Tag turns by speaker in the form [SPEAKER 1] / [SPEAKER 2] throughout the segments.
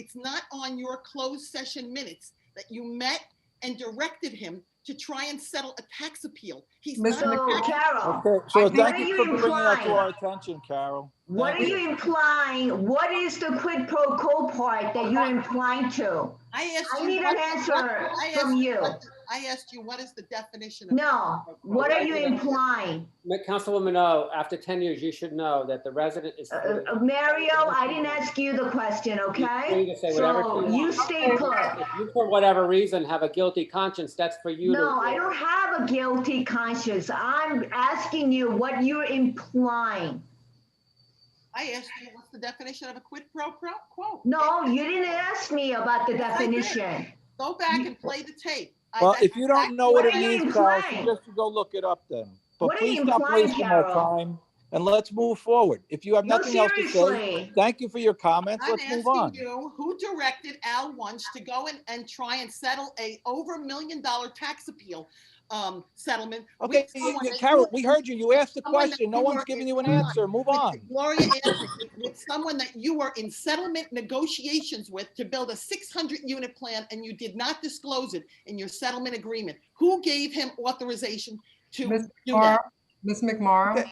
[SPEAKER 1] It's not on your closed session minutes that you met and directed him to try and settle a tax appeal. He's not.
[SPEAKER 2] Mr.
[SPEAKER 1] a
[SPEAKER 3] So
[SPEAKER 2] McCarroll.
[SPEAKER 1] tax-
[SPEAKER 3] Carol,
[SPEAKER 4] Okay, so
[SPEAKER 3] What
[SPEAKER 4] thank
[SPEAKER 3] are
[SPEAKER 4] you
[SPEAKER 3] you
[SPEAKER 4] for bringing that to
[SPEAKER 3] implying?
[SPEAKER 4] our attention, Carol.
[SPEAKER 3] what are
[SPEAKER 4] Thank
[SPEAKER 3] you implying? What is the quid pro quo part that you're implying to?
[SPEAKER 1] I asked
[SPEAKER 3] I
[SPEAKER 1] you
[SPEAKER 3] need
[SPEAKER 1] what-
[SPEAKER 3] an answer
[SPEAKER 1] I asked
[SPEAKER 3] from you.
[SPEAKER 1] what- I asked you, what is the definition of?
[SPEAKER 3] No, what are you implying?
[SPEAKER 5] Ma- Councilwoman O, after 10 years, you should know that the resident is.
[SPEAKER 3] Uh, uh, Mario, I didn't ask you the question,
[SPEAKER 5] You
[SPEAKER 3] okay?
[SPEAKER 5] can say whatever
[SPEAKER 3] So
[SPEAKER 5] you
[SPEAKER 3] you
[SPEAKER 5] want.
[SPEAKER 3] stay put.
[SPEAKER 5] If you, for whatever reason, have a guilty conscience, that's for you to.
[SPEAKER 3] No, I don't have a guilty conscience. I'm asking you what you're implying.
[SPEAKER 1] I asked you, what's the definition of a quid pro pro- quo?
[SPEAKER 3] No, you didn't ask me about the
[SPEAKER 1] Yes, I did.
[SPEAKER 3] definition.
[SPEAKER 1] Go back and play the tape. I-
[SPEAKER 4] Well,
[SPEAKER 1] that's
[SPEAKER 4] if you don't
[SPEAKER 1] exactly
[SPEAKER 4] know what it
[SPEAKER 3] What are you
[SPEAKER 4] means, Carol,
[SPEAKER 3] implying?
[SPEAKER 4] suggest you go look it up then. But
[SPEAKER 3] What are you
[SPEAKER 4] please stop
[SPEAKER 3] implying,
[SPEAKER 4] wasting our
[SPEAKER 3] Carol?
[SPEAKER 4] time and let's move forward. If you have
[SPEAKER 3] No,
[SPEAKER 4] nothing else to say,
[SPEAKER 3] seriously.
[SPEAKER 4] thank you for your comments.
[SPEAKER 1] I'm
[SPEAKER 4] Let's move on.
[SPEAKER 1] asking you, who directed Al Wunsch to go and, and try and settle a over a million dollar tax appeal, um, settlement? with
[SPEAKER 4] Okay, you-
[SPEAKER 1] someone
[SPEAKER 4] you-
[SPEAKER 1] that
[SPEAKER 4] Carol,
[SPEAKER 1] you-
[SPEAKER 4] we heard you. You asked the
[SPEAKER 1] someone that
[SPEAKER 4] question. No
[SPEAKER 1] you
[SPEAKER 4] one's
[SPEAKER 1] were-
[SPEAKER 4] giving you an
[SPEAKER 1] Come on.
[SPEAKER 4] answer. Move
[SPEAKER 1] with
[SPEAKER 4] on.
[SPEAKER 1] Gloria Anderson, with someone that you were in settlement negotiations with to build a six hundred unit plan and you did not disclose it in your settlement agreement. Who gave him authorization to
[SPEAKER 2] Ms.
[SPEAKER 1] do that?
[SPEAKER 2] Ms. McMorro,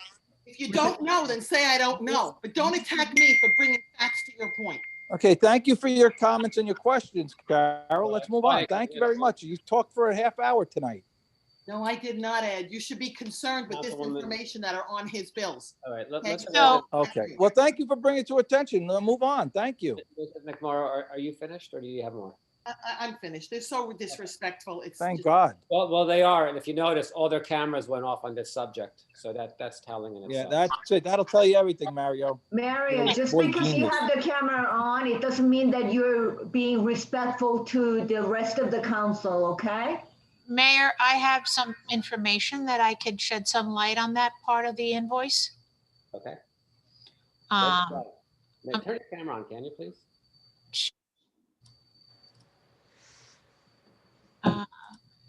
[SPEAKER 1] If you don't know, then say I don't know, but don't attack me for bringing facts to your point.
[SPEAKER 4] Okay, thank you for your comments and your questions, Carol. Let's move on.
[SPEAKER 5] Right,
[SPEAKER 4] Thank you
[SPEAKER 5] yeah.
[SPEAKER 4] very much. You talked for a half hour tonight.
[SPEAKER 1] No, I did not, Ed. You should be concerned with this
[SPEAKER 5] Councilwoman-
[SPEAKER 1] information that are on his bills.
[SPEAKER 5] All right, let-
[SPEAKER 1] Okay,
[SPEAKER 5] let's.
[SPEAKER 1] so-
[SPEAKER 4] Okay, well, thank you for bringing it to attention. Now move on. Thank you.
[SPEAKER 5] Mrs. McMorro, are, are you finished or do you have more?
[SPEAKER 1] I, I, I'm finished. They're so disrespectful. It's.
[SPEAKER 4] Thank
[SPEAKER 1] just-
[SPEAKER 4] God.
[SPEAKER 5] Well, well, they are. And if you notice, all their cameras went off on this subject. So that, that's telling in
[SPEAKER 4] Yeah,
[SPEAKER 5] itself.
[SPEAKER 4] that's it. That'll tell you everything, Mario.
[SPEAKER 3] Mario,
[SPEAKER 4] You're
[SPEAKER 3] just
[SPEAKER 4] one
[SPEAKER 3] because you
[SPEAKER 4] genius.
[SPEAKER 3] have the camera on, it doesn't mean that you're being respectful to the rest of the council, okay?
[SPEAKER 6] Mayor, I have some information that I could shed some light on that part of the invoice.
[SPEAKER 5] Okay.
[SPEAKER 1] Uh,
[SPEAKER 5] Let's
[SPEAKER 6] Um,
[SPEAKER 5] go. May-
[SPEAKER 6] um,
[SPEAKER 5] Turn your camera on, can you please?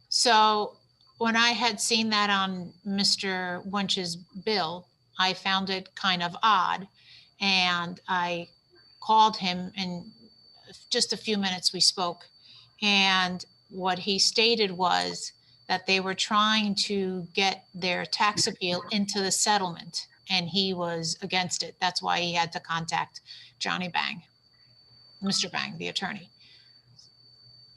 [SPEAKER 6] So when I had seen that on Mr. Wunsch's bill, I found it kind of odd. And I called him and just a few minutes we spoke. And what he stated was that they were trying to get their tax appeal into the settlement and he was against it. That's why he had to contact Johnny Bang, Mr. Bang, the attorney.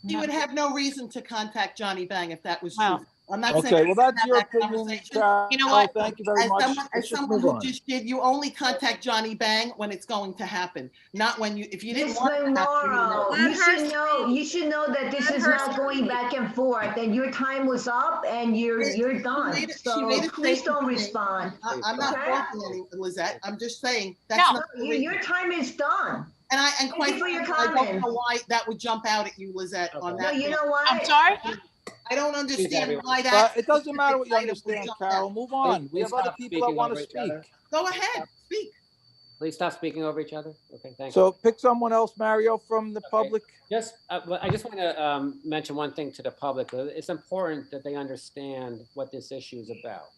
[SPEAKER 1] He would have no reason to contact Johnny Bang if that was true.
[SPEAKER 6] Well,
[SPEAKER 1] I'm not saying.
[SPEAKER 4] Okay, well, that's
[SPEAKER 1] have
[SPEAKER 4] your
[SPEAKER 1] that
[SPEAKER 4] opinion,
[SPEAKER 1] conversation.
[SPEAKER 4] Carol.
[SPEAKER 6] You know what?
[SPEAKER 4] Thank you very
[SPEAKER 1] As
[SPEAKER 4] much.
[SPEAKER 1] someone,
[SPEAKER 4] Let's
[SPEAKER 1] as
[SPEAKER 4] just
[SPEAKER 1] someone
[SPEAKER 4] move
[SPEAKER 1] who
[SPEAKER 4] on.
[SPEAKER 1] just did, you only contact Johnny Bang when it's going to happen, not when you, if you didn't
[SPEAKER 3] Ms.
[SPEAKER 1] want. it to happen, you know.
[SPEAKER 3] Monroe,
[SPEAKER 7] Let
[SPEAKER 3] you
[SPEAKER 7] her
[SPEAKER 3] should know, you should know that this
[SPEAKER 7] Let
[SPEAKER 3] is
[SPEAKER 7] her
[SPEAKER 3] not going
[SPEAKER 7] speak.
[SPEAKER 3] back and forth, and your time was up, and you're,
[SPEAKER 1] She
[SPEAKER 3] you're done.
[SPEAKER 1] made a- she
[SPEAKER 3] So
[SPEAKER 1] made a
[SPEAKER 3] please don't
[SPEAKER 1] statement.
[SPEAKER 3] respond.
[SPEAKER 1] I- I'm not
[SPEAKER 3] Okay.
[SPEAKER 1] faulting any- Lizette. I'm just saying
[SPEAKER 6] No.
[SPEAKER 1] that's not. the
[SPEAKER 3] Your,
[SPEAKER 1] reason.
[SPEAKER 3] your time is done.
[SPEAKER 1] And I, and
[SPEAKER 3] you
[SPEAKER 1] quite
[SPEAKER 3] for your
[SPEAKER 1] frankly, I don't
[SPEAKER 3] comments.
[SPEAKER 1] know why that would jump out at you, Lizette, on
[SPEAKER 5] Okay.
[SPEAKER 3] No,
[SPEAKER 1] that.
[SPEAKER 3] you
[SPEAKER 1] thing.
[SPEAKER 3] know what?
[SPEAKER 6] I'm sorry?
[SPEAKER 1] I don't understand
[SPEAKER 5] everyone.
[SPEAKER 1] why
[SPEAKER 4] But
[SPEAKER 1] that.
[SPEAKER 4] it doesn't matter what you
[SPEAKER 1] item would
[SPEAKER 4] understand,
[SPEAKER 1] jump out.
[SPEAKER 4] Carol. Move on. We
[SPEAKER 5] Please
[SPEAKER 4] have other
[SPEAKER 5] stop
[SPEAKER 4] people that
[SPEAKER 5] speaking
[SPEAKER 4] want to
[SPEAKER 5] over each
[SPEAKER 4] speak.
[SPEAKER 5] other.
[SPEAKER 1] Go ahead, speak.
[SPEAKER 5] Please stop speaking over each other. Okay, thank you.
[SPEAKER 4] So pick someone else, Mario, from the
[SPEAKER 5] Okay.
[SPEAKER 4] public.
[SPEAKER 5] Yes, uh, well, I just want to um, mention one thing to the public. Uh, It's important that they understand what this issue is about.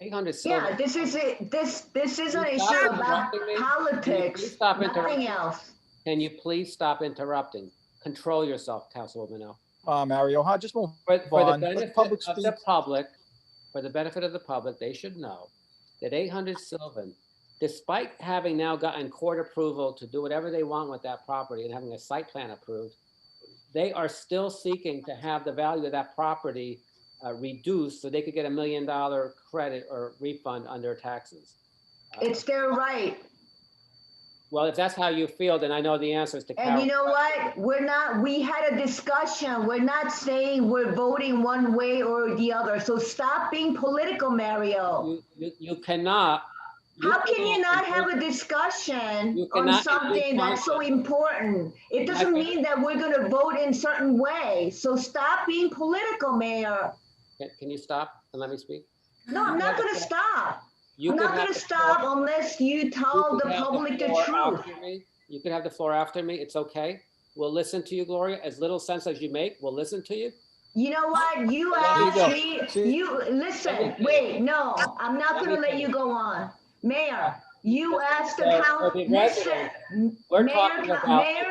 [SPEAKER 5] 800
[SPEAKER 3] Yeah,
[SPEAKER 5] Silver.
[SPEAKER 3] this is it, this, this is an
[SPEAKER 5] You
[SPEAKER 3] issue
[SPEAKER 5] stop
[SPEAKER 3] about
[SPEAKER 5] interrupting me. You
[SPEAKER 3] politics,
[SPEAKER 5] stop
[SPEAKER 3] nothing
[SPEAKER 5] interrupting.
[SPEAKER 3] else.
[SPEAKER 5] Can you please stop interrupting? Control yourself, Councilwoman O.
[SPEAKER 4] Uh, Mario, huh? Just move.
[SPEAKER 5] For for the
[SPEAKER 4] Vaughn, let
[SPEAKER 5] benefit
[SPEAKER 4] public
[SPEAKER 5] of the
[SPEAKER 4] speak.
[SPEAKER 5] public, for the benefit of the public, they should know that 800 Sylvan, despite having now gotten court approval to do whatever they want with that property and having a site plan approved, they are still seeking to have the value of that property uh, reduced so they could get a million dollar credit or refund on their taxes. Uh,
[SPEAKER 3] It's their right.
[SPEAKER 5] Well, if that's how you feel, then I know the answer is to
[SPEAKER 3] And you
[SPEAKER 5] Carol.
[SPEAKER 3] know what? We're not, we had a discussion. We're not saying we're voting one way or the other. So stop being political, Mario.
[SPEAKER 5] You- You you cannot.
[SPEAKER 3] How can you not have a
[SPEAKER 5] You
[SPEAKER 3] discussion on
[SPEAKER 5] cannot
[SPEAKER 3] something that's so
[SPEAKER 5] respond.
[SPEAKER 3] important? It doesn't mean that we're gonna vote in certain way. So stop being political, Mayor.
[SPEAKER 5] Can- Can you stop and let me speak?
[SPEAKER 3] No, I'm not gonna stop.
[SPEAKER 5] You
[SPEAKER 3] I'm
[SPEAKER 5] could
[SPEAKER 3] not
[SPEAKER 5] have
[SPEAKER 3] gonna
[SPEAKER 5] the
[SPEAKER 3] stop
[SPEAKER 5] floor-
[SPEAKER 3] unless you
[SPEAKER 5] you
[SPEAKER 3] tell
[SPEAKER 5] could
[SPEAKER 3] the
[SPEAKER 5] have
[SPEAKER 3] public the
[SPEAKER 5] floor
[SPEAKER 3] truth.
[SPEAKER 5] after me. You could have the floor after me. It's okay. We'll listen to you, Gloria. As little sense as you make, we'll listen to you.
[SPEAKER 3] You know what? You
[SPEAKER 5] Let
[SPEAKER 4] me go.
[SPEAKER 3] asked me,
[SPEAKER 4] See-
[SPEAKER 3] you,
[SPEAKER 5] Let me
[SPEAKER 3] listen,
[SPEAKER 5] finish.
[SPEAKER 3] wait, no, I'm not
[SPEAKER 5] Let
[SPEAKER 3] gonna
[SPEAKER 5] me
[SPEAKER 3] let you
[SPEAKER 5] finish.
[SPEAKER 3] go on. Mayor,
[SPEAKER 5] You asked the
[SPEAKER 3] So,
[SPEAKER 5] council,
[SPEAKER 3] for the residents, We're talking about.
[SPEAKER 5] Mayor